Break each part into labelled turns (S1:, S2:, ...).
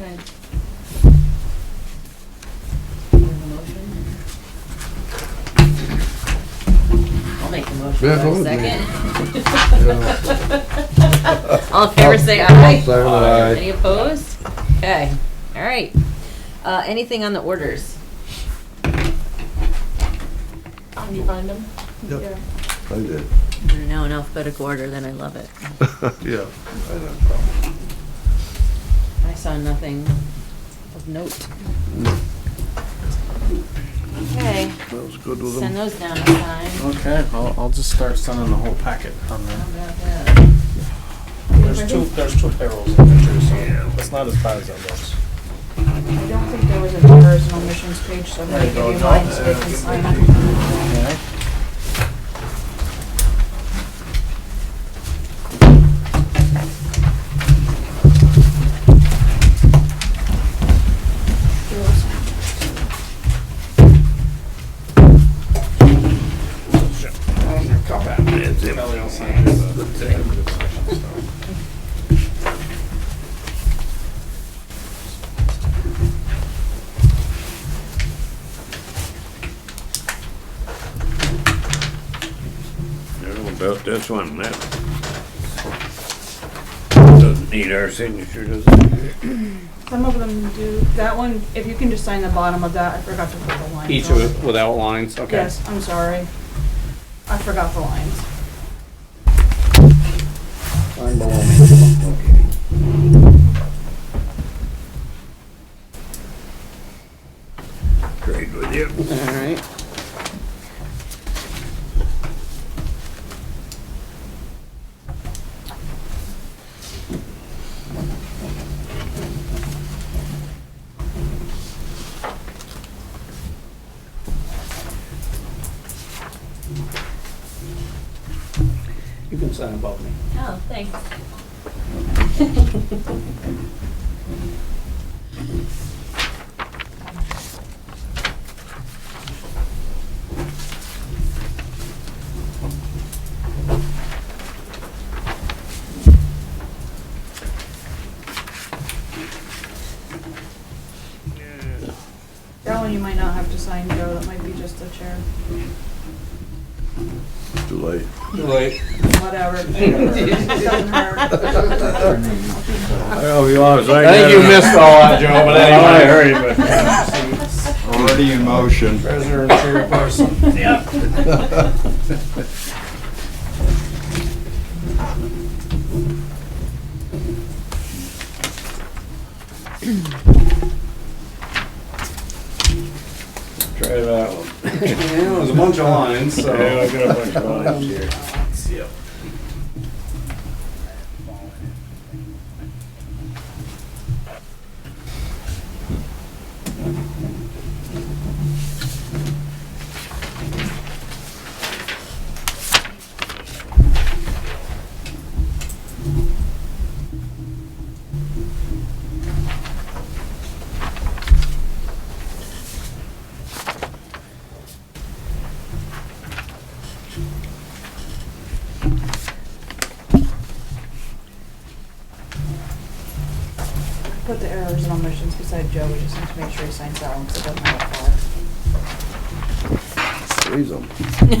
S1: Okay. Do you have a motion? I'll make the motion. Do
S2: Yeah,
S1: I have a
S2: hold it,
S1: Second. All in favor, say
S2: I'll
S1: aye.
S2: say aye.
S1: Any opposed? Okay, all right. Uh, anything on the orders?
S3: Can you find them?
S2: Yep.
S3: Yeah.
S2: I did.
S1: They're now in alphabetical order, then I love it.
S2: Yeah. I had a problem.
S1: I saw nothing of note. Okay,
S2: That was good with
S1: send
S2: them.
S1: those down in time.
S4: Okay, I'll, I'll just start sending the whole packet on
S1: How
S4: there.
S1: about that?
S4: There's two, there's two payrolls in there too, so it's not as bad as it looks.
S3: I don't think there was a numbers and omissions page, so I'm gonna
S4: There you
S3: give
S4: go,
S3: you
S4: John.
S3: mine so they can sign it.
S4: Okay. Ellie will sign it, but-
S5: Know about this one, that. Doesn't need our signature, does it?
S3: Some of them do, that one, if you can just sign the bottom of that, I forgot to put the lines
S4: Each
S3: on.
S4: with- without lines, okay.
S3: Yes, I'm sorry. I forgot the lines.
S5: Trade with you.
S4: Alright. You can sign above me.
S1: Oh, thanks.
S3: That one you might not have to sign, Joe, that might be just the chair,
S2: Too late.
S4: Right.
S3: whatever. Doesn't hurt.
S5: I hope you all was like
S4: I think you missed all that, Joe, but
S5: I
S4: anyway.
S5: heard it, but.
S6: Already in motion.
S4: Treasurer and chairperson.
S5: Try that one.
S4: Yeah, it was a bunch of lines, so. Um,
S5: Yeah, I got a bunch of lines here.
S4: Yep.
S3: Put the errors and omissions beside Joe, we just need to make sure he signs that one, 'cause it doesn't have
S2: Freeze them. Fingers getting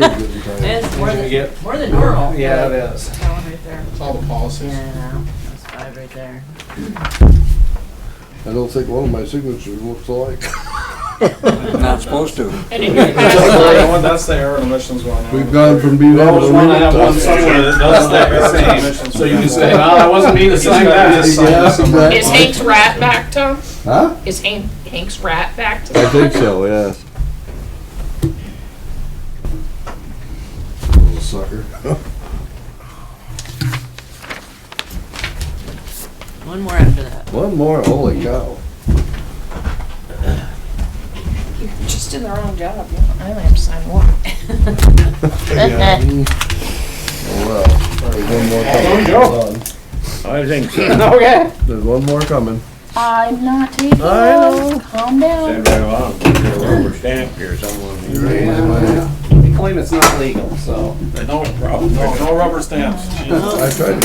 S2: tired.
S1: It's more
S4: Did you
S1: than,
S4: get-
S1: more than normal.
S4: Yeah, it is.
S3: a far. That one right there.
S4: It's all the policies.
S1: Yeah, that's five right there.
S2: I don't think one of my signatures looks alike.
S6: Not supposed to.
S4: That's the error and omissions going on.
S2: We've gone from being
S4: I
S2: able
S4: always
S2: to
S4: want to
S2: read
S4: have one somewhere that does that same, so you can say, well, that wasn't me that signed that.
S7: Is
S2: Yeah,
S7: Hank's rat back, Tom?
S2: Huh?
S7: Is Hank, Hank's rat back?
S2: I think so, yes. Little sucker.
S1: One more after that.
S2: One more, holy cow.
S3: You just did the wrong job, yeah.
S7: I only have to sign one.
S2: Yeah. Oh, well. There's one more coming. Hold on.
S5: I think so.
S4: Okay.
S2: There's one more coming.
S8: I'm not taking
S2: I know.
S8: one. Calm down.
S5: Send right along, put your rubber stamp here somewhere.
S4: They claim it's not legal, so. No problem, no rubber stamps.
S2: I tried to